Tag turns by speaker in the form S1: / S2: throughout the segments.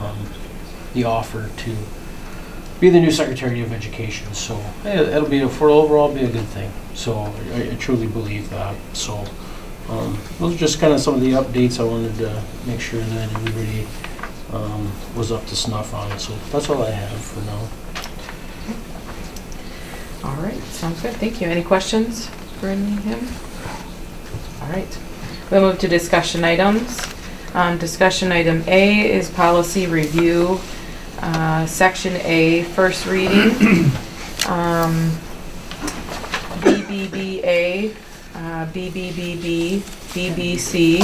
S1: um, the offer to be the new Secretary of Education. So eh, it'll be, for overall, be a good thing. So I I truly believe that. So um, those are just kind of some of the updates I wanted to make sure that everybody um, was up to snuff on. So that's all I have for now.
S2: All right, sounds good. Thank you. Any questions for any of him? All right. We'll move to discussion items. Um, Discussion item A is policy review, uh, section A, first reading. Um, BBBA, uh, BBBB, BBC,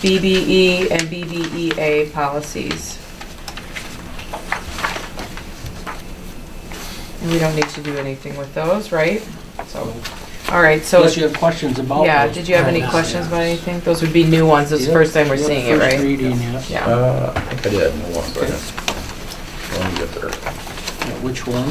S2: BBE, E, and BBEA policies. And we don't need to do anything with those, right? So, all right, so.
S1: Unless you have questions about.
S2: Yeah,
S1: those.
S2: did you have any
S1: Yeah.
S2: questions about anything? Those would be new ones, this is the
S1: Yep,
S2: first time we're
S1: yep,
S2: seeing it,
S1: First
S2: right?
S1: reading, yeah.
S2: Yeah,
S3: Uh, I think I did have one, but
S1: Okay.
S3: let me get there.
S1: Yeah, Which one?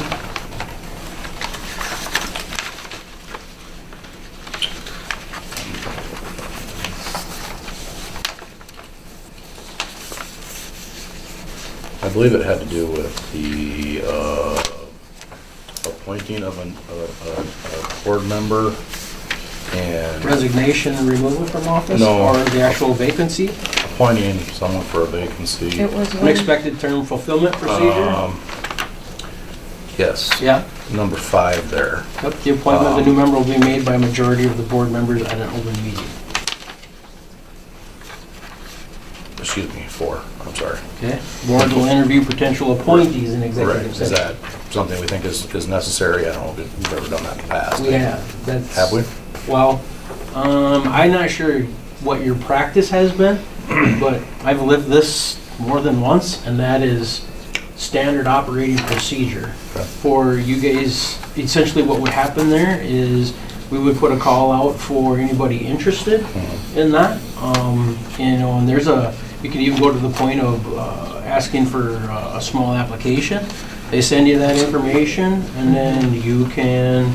S3: I believe it had to do with the uh, appointing of an- a- a a board member and
S1: Resignation and removal from office?
S3: No.
S1: Or the actual vacancy?
S3: appointing someone for a vacancy.
S2: it was one,
S1: Unexpected term fulfillment procedure?
S3: Um, Yes,
S1: Yeah,
S3: number five there.
S1: yep, the appointment of the
S3: um,
S1: new member will be made by a majority of the board members at an open meeting.
S3: Excuse me, four, I'm sorry.
S1: Okay? Board will interview potential appointees in executive
S3: Right, is
S1: session.
S3: that something we think is is necessary? I don't know if we've ever done that in the past.
S1: We have, that's.
S3: Have we?
S1: Well, um, I'm not sure what your practice has been, but I've lived this more than once, and that is standard operating procedure.
S3: Okay.
S1: For you guys, essentially what would happen there is we would put a call out for anybody interested
S3: Mm-hmm.
S1: in that. Um, you know, and there's a, you can even go to the point of, uh, asking for uh, a small application. They send you that information, and then you can,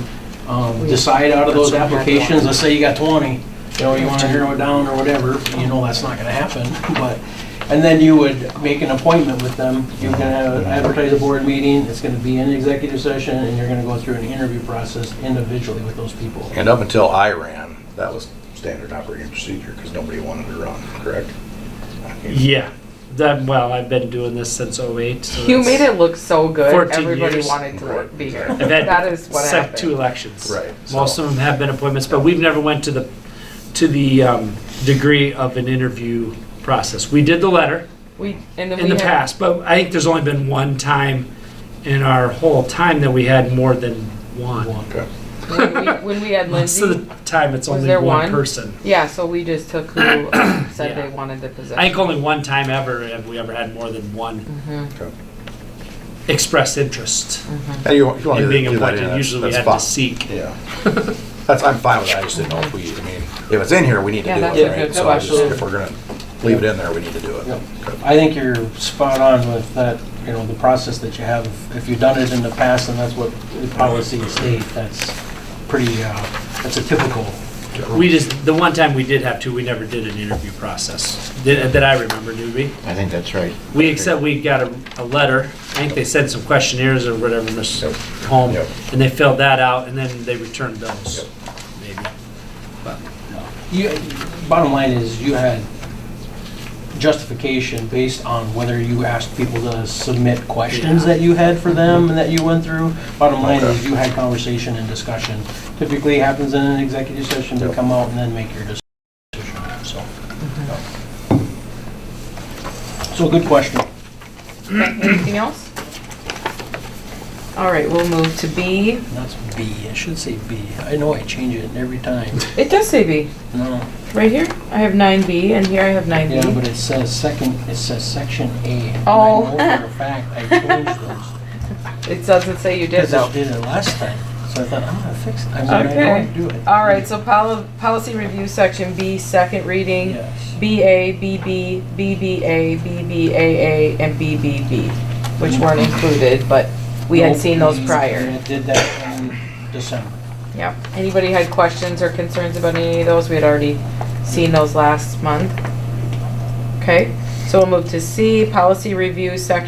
S1: um, decide out of those applications, let's say you got twenty, you know, you wanna narrow it down or whatever, you know, that's not gonna happen, but, and then you would make an appointment with them, you're gonna advertise a board meeting, it's gonna be an executive session, and you're gonna go through an interview process individually with those people.
S3: And up until I ran, that was standard operating procedure because nobody wanted to run, correct?
S4: Yeah. That well, I've been doing this since 08. So
S2: you
S4: it's-
S2: made it look so good,
S4: 14
S2: everybody
S4: years.
S2: wanted to be here.
S4: I've had
S2: That is what
S4: sec- two
S2: happened.
S4: elections.
S3: Right,
S4: Most
S3: so-
S4: of them have been appointments, but we've never went to the to the um, degree of an interview process. We did the letter
S2: We, and then
S4: in
S2: we had,
S4: the past, but I think there's only been one time in our whole time that we had more than one.
S3: Okay.
S2: when we- when we had
S4: Most of
S2: Lindsay,
S4: the time, it's
S2: Was
S4: only
S2: there
S4: one,
S2: one?
S4: person.
S2: yeah, so we just took who um, said they
S4: Yeah.
S2: wanted the position.
S4: I think only one time ever have we ever had more than one
S2: Mhm.
S3: Okay.
S4: expressed interest
S3: And you, you want to
S4: in being
S3: do that,
S4: appointed.
S3: Mm-hmm. yeah, that's-
S4: Usually, we
S3: that's
S4: had
S3: fine.
S4: to seek.
S3: Yeah. That's, I'm fine with that, I just didn't know if we, I mean, if it's in here, we need to
S2: Yeah,
S3: do
S2: that's
S3: it,
S1: okay.
S3: right? So I just,
S1: Absolutely.
S3: if we're gonna leave it in there, we need to do it.
S1: Yep. I think you're spot on with that, you know, the process that you have. If you've done it in the past, and that's what the policy state, that's pretty, uh, that's a typical.
S4: We just, the one time we did have to, we never did an interview process, that that I remember, did we?
S5: I think that's right.
S4: We, except we got a, a letter, I think they sent some questionnaires or whatever, Miss
S3: Yep.
S4: Home,
S3: Yep.
S4: and they filled that out, and then they returned those, maybe. But
S1: You, bottom line is, you had justification based on whether you asked people to submit questions that you had for them and that you went through. Bottom line is, you had conversation and discussion. Typically happens in an executive session to
S3: Yep.
S1: come out and then make your decision, so. So good question.
S2: Anything else? All right, we'll move to B.
S1: That's B, I should say B. I know I change it every time.
S2: It does say B,
S1: No,
S2: right here, I have nine B, and here I have nine
S1: yeah, but
S2: B.
S1: it says second, it says section A. and
S2: Oh.
S1: I know for a fact I changed those.
S2: It doesn't say you did
S1: Because
S2: though.
S1: I did it last time, so I thought, I'm gonna fix it. I'm gonna
S2: Okay.
S1: do it.
S2: All right, so poli- policy review section B, second reading,
S1: Yes.
S2: BA, BB, BBA, BBAA, and BBB, which weren't included, but we had
S1: Nope,
S2: seen those
S1: we-
S2: prior.
S1: we Did that in December.
S2: Yep. Anybody had questions or concerns about any of those? We had already seen those last month. Okay, So we'll move to C, policy review, section